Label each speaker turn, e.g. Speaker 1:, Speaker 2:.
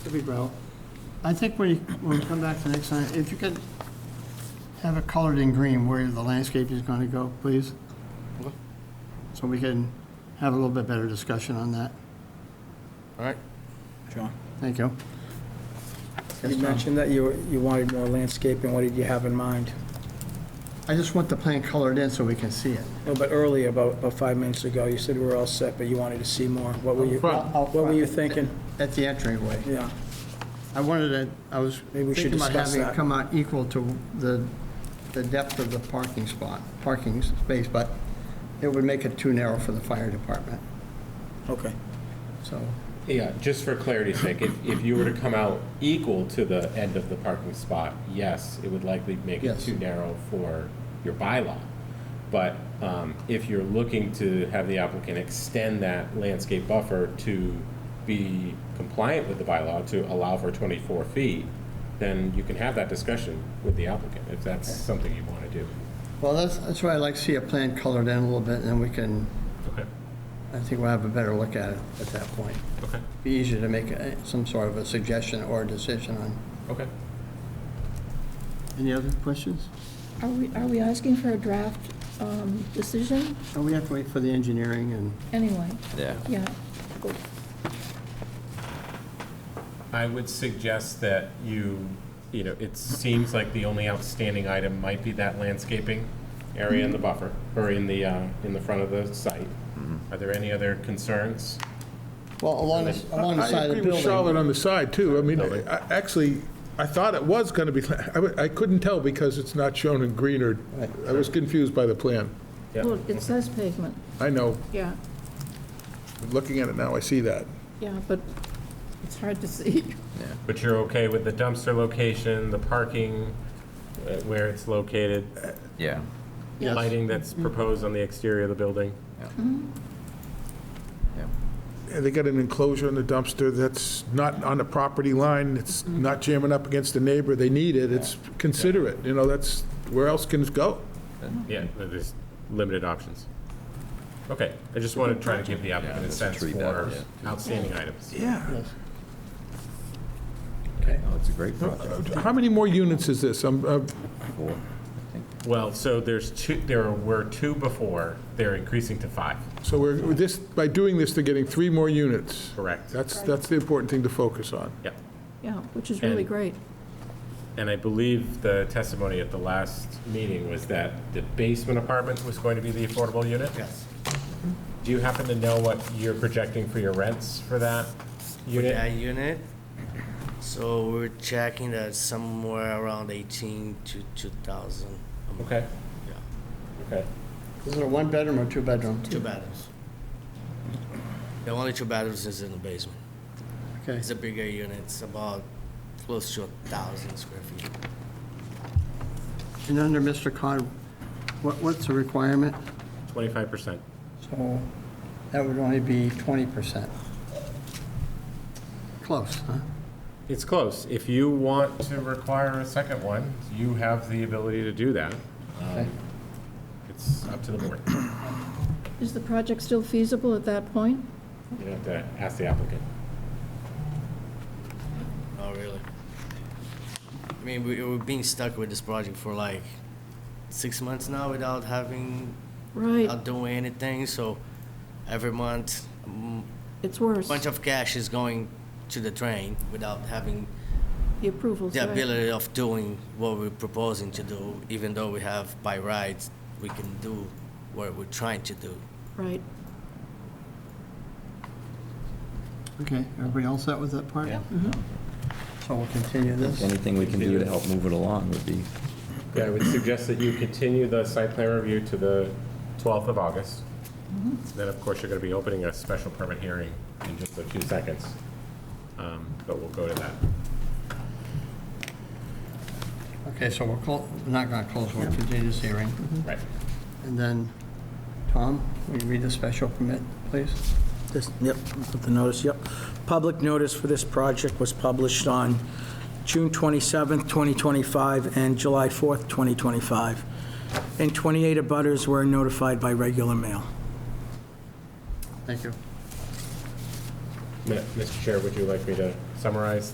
Speaker 1: Mississippi Route. I think when you, when we come back to next time, if you could have it colored in green where the landscape is gonna go, please.
Speaker 2: Okay.
Speaker 1: So we can have a little bit better discussion on that.
Speaker 2: All right.
Speaker 3: John?
Speaker 1: Thank you.
Speaker 4: You mentioned that you, you wanted more landscaping, what did you have in mind?
Speaker 1: I just want the plan colored in so we can see it.
Speaker 4: A little bit earlier, about, about five minutes ago, you said we were all set, but you wanted to see more. What were you,
Speaker 2: Front.
Speaker 4: what were you thinking?
Speaker 1: At the entryway.
Speaker 4: Yeah,
Speaker 1: I wanted it, I was
Speaker 4: Maybe we should
Speaker 1: thinking about
Speaker 4: discuss
Speaker 1: having it
Speaker 4: that.
Speaker 1: come out equal to the, the depth of the parking spot, parking space, but it would make it too narrow for the fire department,
Speaker 4: okay.
Speaker 1: so.
Speaker 5: Yeah, just for clarity's sake, if, if you were to come out equal to the end of the parking spot, yes, it would likely make it
Speaker 1: Yes.
Speaker 5: too narrow for your bylaw. But um, if you're looking to have the applicant extend that landscape buffer to be compliant with the bylaw, to allow for 24 feet, then you can have that discussion with the applicant, if that's something you want to do.
Speaker 1: Well, that's, that's why I'd like to see a plan colored in a little bit, and then we can,
Speaker 2: Okay,
Speaker 1: I think we'll have a better look at it at that point.
Speaker 2: okay,
Speaker 1: Be easier to make uh, some sort of a suggestion or a decision on.
Speaker 2: okay.
Speaker 1: Any other questions?
Speaker 6: Are we, are we asking for a draft um, decision
Speaker 1: Oh, we have to wait for the engineering and.
Speaker 6: anyway?
Speaker 3: Yeah.
Speaker 6: Yeah.
Speaker 5: I would suggest that you, you know, it seems like the only outstanding item might be that landscaping area
Speaker 6: Mm-hmm.
Speaker 5: in the buffer, or in the, uh, in the front of the site. Are there any other concerns?
Speaker 1: Well, along, the- along the side of the
Speaker 7: I agree with Charlotte
Speaker 1: building.
Speaker 7: on the side, too. I mean, I- actually, I thought it was going to be, I w- I couldn't tell because it's not shown in green or, I was confused by the plan.
Speaker 5: Yeah.
Speaker 6: Well, it says pavement,
Speaker 7: I know,
Speaker 6: yeah,
Speaker 7: looking at it now, I see that.
Speaker 6: yeah, but it's hard to see.
Speaker 5: But you're okay with the dumpster location, the parking, uh, where it's located,
Speaker 3: Yeah.
Speaker 6: Yes. Mm-hmm.
Speaker 5: lighting that's proposed on the exterior of the building?
Speaker 3: Yeah.
Speaker 7: And They got an enclosure in the dumpster that's not on the property line, it's
Speaker 1: Mm-hmm.
Speaker 7: not jamming up against the neighbor, they need it, it's considerate, you know, that's, where else can it go?
Speaker 6: Mm-hmm.
Speaker 5: Yeah, there's limited options. Okay, I just wanted to try to give the applicant a
Speaker 3: let's
Speaker 5: sense
Speaker 3: treat that,
Speaker 5: for
Speaker 3: yeah.
Speaker 5: outstanding items.
Speaker 7: Yeah.
Speaker 3: No, Oh, it's a great project.
Speaker 7: How many more units is this? I'm, uh,
Speaker 3: Four.
Speaker 5: Well, so there's two, there were two before, they're increasing to five.
Speaker 7: So we're, this, by doing this, they're getting three more units.
Speaker 5: Correct.
Speaker 7: That's, that's the important thing to focus on.
Speaker 5: Yep.
Speaker 6: Yeah, which is really
Speaker 5: And-
Speaker 6: great.
Speaker 5: And I believe the testimony at the last meeting was that the basement apartment was going to be the affordable unit? Yes. Do you happen to know what you're projecting for your rents for that
Speaker 8: that
Speaker 5: unit?
Speaker 8: unit. So we're checking that somewhere around 18 to 2,000. a month.
Speaker 5: Okay,
Speaker 8: Yeah,
Speaker 5: okay.
Speaker 1: Is it a one-bedroom or two-bedroom?
Speaker 8: two bedrooms. The only two bedrooms is in the basement.
Speaker 1: Okay,
Speaker 8: It's a bigger unit, it's about close to 1,000 square feet.
Speaker 1: and under Mr. Cod, what, what's the requirement?
Speaker 5: Twenty-five percent.
Speaker 1: So that would only be 20%. Close, huh?
Speaker 5: It's close. If you want to require a second one, you have the ability to do that.
Speaker 1: Okay.
Speaker 5: It's up to the board.
Speaker 6: Is the project still feasible at that point?
Speaker 5: You have to ask the applicant.
Speaker 8: Oh, really? I mean, we, we're being stuck with this project for like six months now without having,
Speaker 6: Right,
Speaker 8: not doing anything, so every month, mm,
Speaker 6: it's worse.
Speaker 8: bunch of cash is going to the drain without having
Speaker 6: The approvals,
Speaker 8: the
Speaker 6: right.
Speaker 8: ability of doing what we're proposing to do, even though we have by rights, we can do what we're trying to do.
Speaker 6: Right.
Speaker 1: Okay, everybody else set with that part? Mm-hmm. Yeah. So we'll continue this.
Speaker 3: Anything we can do to help move it along would be,
Speaker 5: Yeah, I would suggest that you continue the site plan review to the 12th of August. Then, of course, you're going to be opening a special permit hearing in just a few seconds, Um, but we'll go to that.
Speaker 1: Okay, so we're clo, we're not gonna close, we'll continue this hearing.
Speaker 5: Right.
Speaker 1: And then, Tom, will you read the special permit, please?
Speaker 4: This, yep, put the notice, yep. Public notice for this project was published on June 27th, 2025, and July 4th, 2025. And 28 abutters were notified by regular mail.
Speaker 1: Thank you.
Speaker 5: Ma- Mr. Chair, would you like me to summarize